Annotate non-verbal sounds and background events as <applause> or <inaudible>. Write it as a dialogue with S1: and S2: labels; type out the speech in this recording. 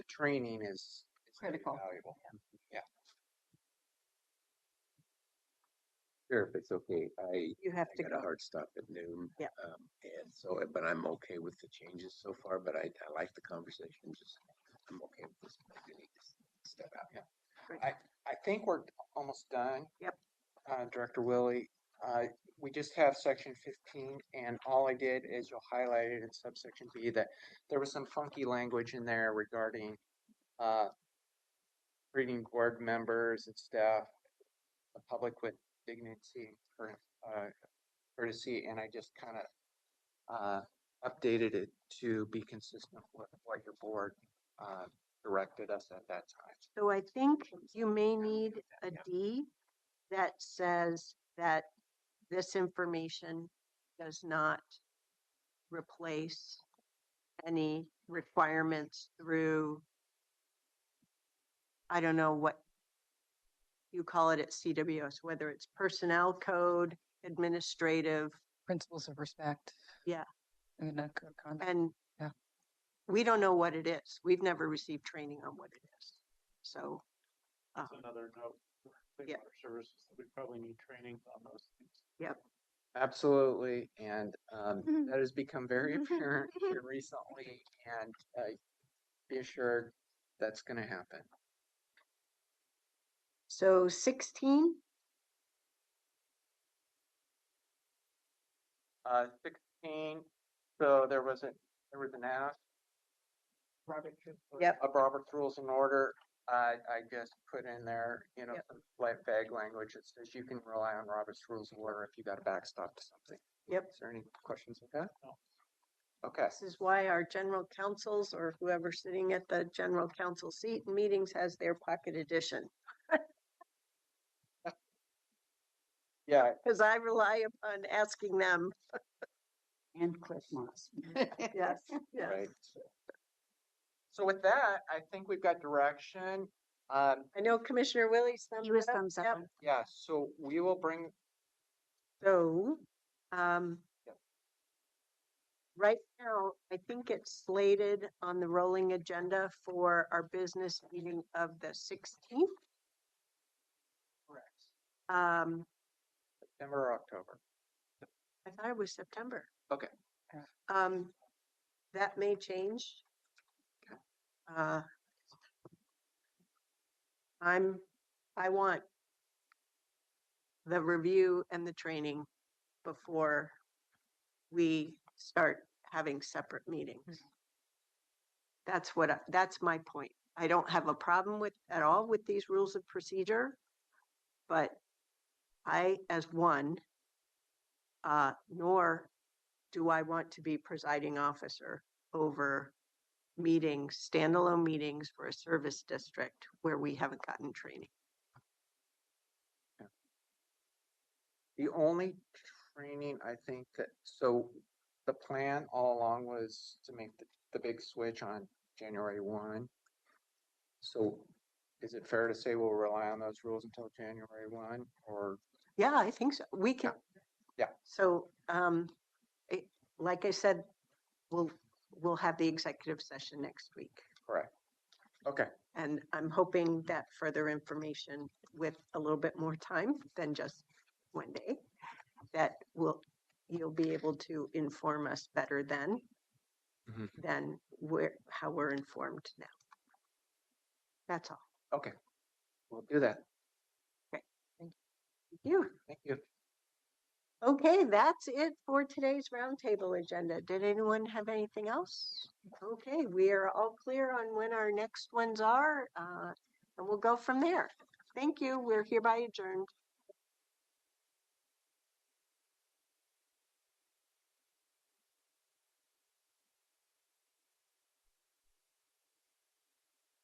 S1: training is. is gonna be
S2: Critical.
S1: Valuable.
S3: Sure, if it's okay, I,
S2: You have
S3: I
S2: to
S3: got a
S2: go.
S3: hard stop at noon.
S2: Yeah.
S3: Um, and so, but I'm okay with the changes so far, but I, I like the conversation, just, I'm okay with this. but I do need to s- Step out.
S1: I think we're almost done.
S2: Yep.
S1: Uh, Director Willie, uh, we just have section fifteen and all I did is you highlighted in subsection B that there was some funky language in there regarding, uh, treating board members and staff, the public with dignity, cour- uh, courtesy, and I just kind of, uh, updated it to be consistent with what your board, uh, directed us at that time.
S2: So I think you may need a
S1: Yeah.
S2: D that says that this information does not replace any requirements through, I don't know what you call it at CWS, whether it's personnel code, administrative,
S4: principles of respect.
S2: Yeah.
S4: And then a code of conduct.
S2: and
S4: Yeah.
S2: we don't know what it is. We've never received training on what it is. So, uh,
S5: That's another note. for Clean
S2: Yep.
S5: water services, that we probably need training on those things.
S1: Absolutely, and um,
S2: Mm-hmm.
S1: that has become very apparent here recently, and uh, be assured that's going to happen.
S2: so sixteen?
S1: Uh, sixteen. So there was a there was an ask.
S2: Yep.
S1: Of Robert's Rules and Order, I I just put in there, you know,
S2: Yep.
S1: some slight vague language that says you can rely on Robert's Rules and Order if you got a backstop to something.
S2: Yep.
S1: Is there any questions with that?
S5: No.
S1: Okay.
S2: This is why our general counsels or whoever's sitting at the general counsel seat in meetings has their pocket edition.
S1: Yeah,
S2: Because I rely upon asking them.
S6: And Cliff Moss.
S2: <laughs> Yes, yes.
S1: Right. So with that, I think we've got direction. Um,
S2: I know Commissioner Willie's thumbs
S6: He was
S2: up.
S6: thumbs up.
S2: Yep.
S6: on-
S1: yeah, so we will bring,
S2: So, um,
S1: Yep.
S2: right now, I think it's slated on the rolling agenda for our business meeting of the sixteenth.
S1: Correct.
S2: Um,
S1: September, or October.
S2: I thought it was September.
S1: Okay.
S4: Yeah.
S2: Um, that may change. Uh, I'm, I want the review and the training before we start having separate meetings. That's what, I that's my point. I don't have a problem with, at all with these rules of procedure. But I, as one, uh, nor do I want to be presiding officer over meetings, standalone meetings for a service district where we haven't gotten training.
S1: The only training I think that, so the plan all along was to make the, the big switch on January one. So is it fair to say we'll rely on those rules until January one or?
S2: Yeah, I think so. We can.
S1: Yeah.
S2: So, um, it, like I said, we'll, we'll have the executive session next week.
S1: Correct. Okay,
S2: And I'm hoping that further information with a little bit more time than just one day, that will, you'll be able to inform us better then
S1: Mhm.
S2: than where, how we're informed now. That's all.
S1: okay. We'll do that.
S2: Thank You.
S1: Thank you.
S2: Okay, that's it for today's roundtable agenda. Did anyone have anything else? Okay, we are all clear on when our next ones are, uh, and we'll go from there. Thank you. We're hereby adjourned.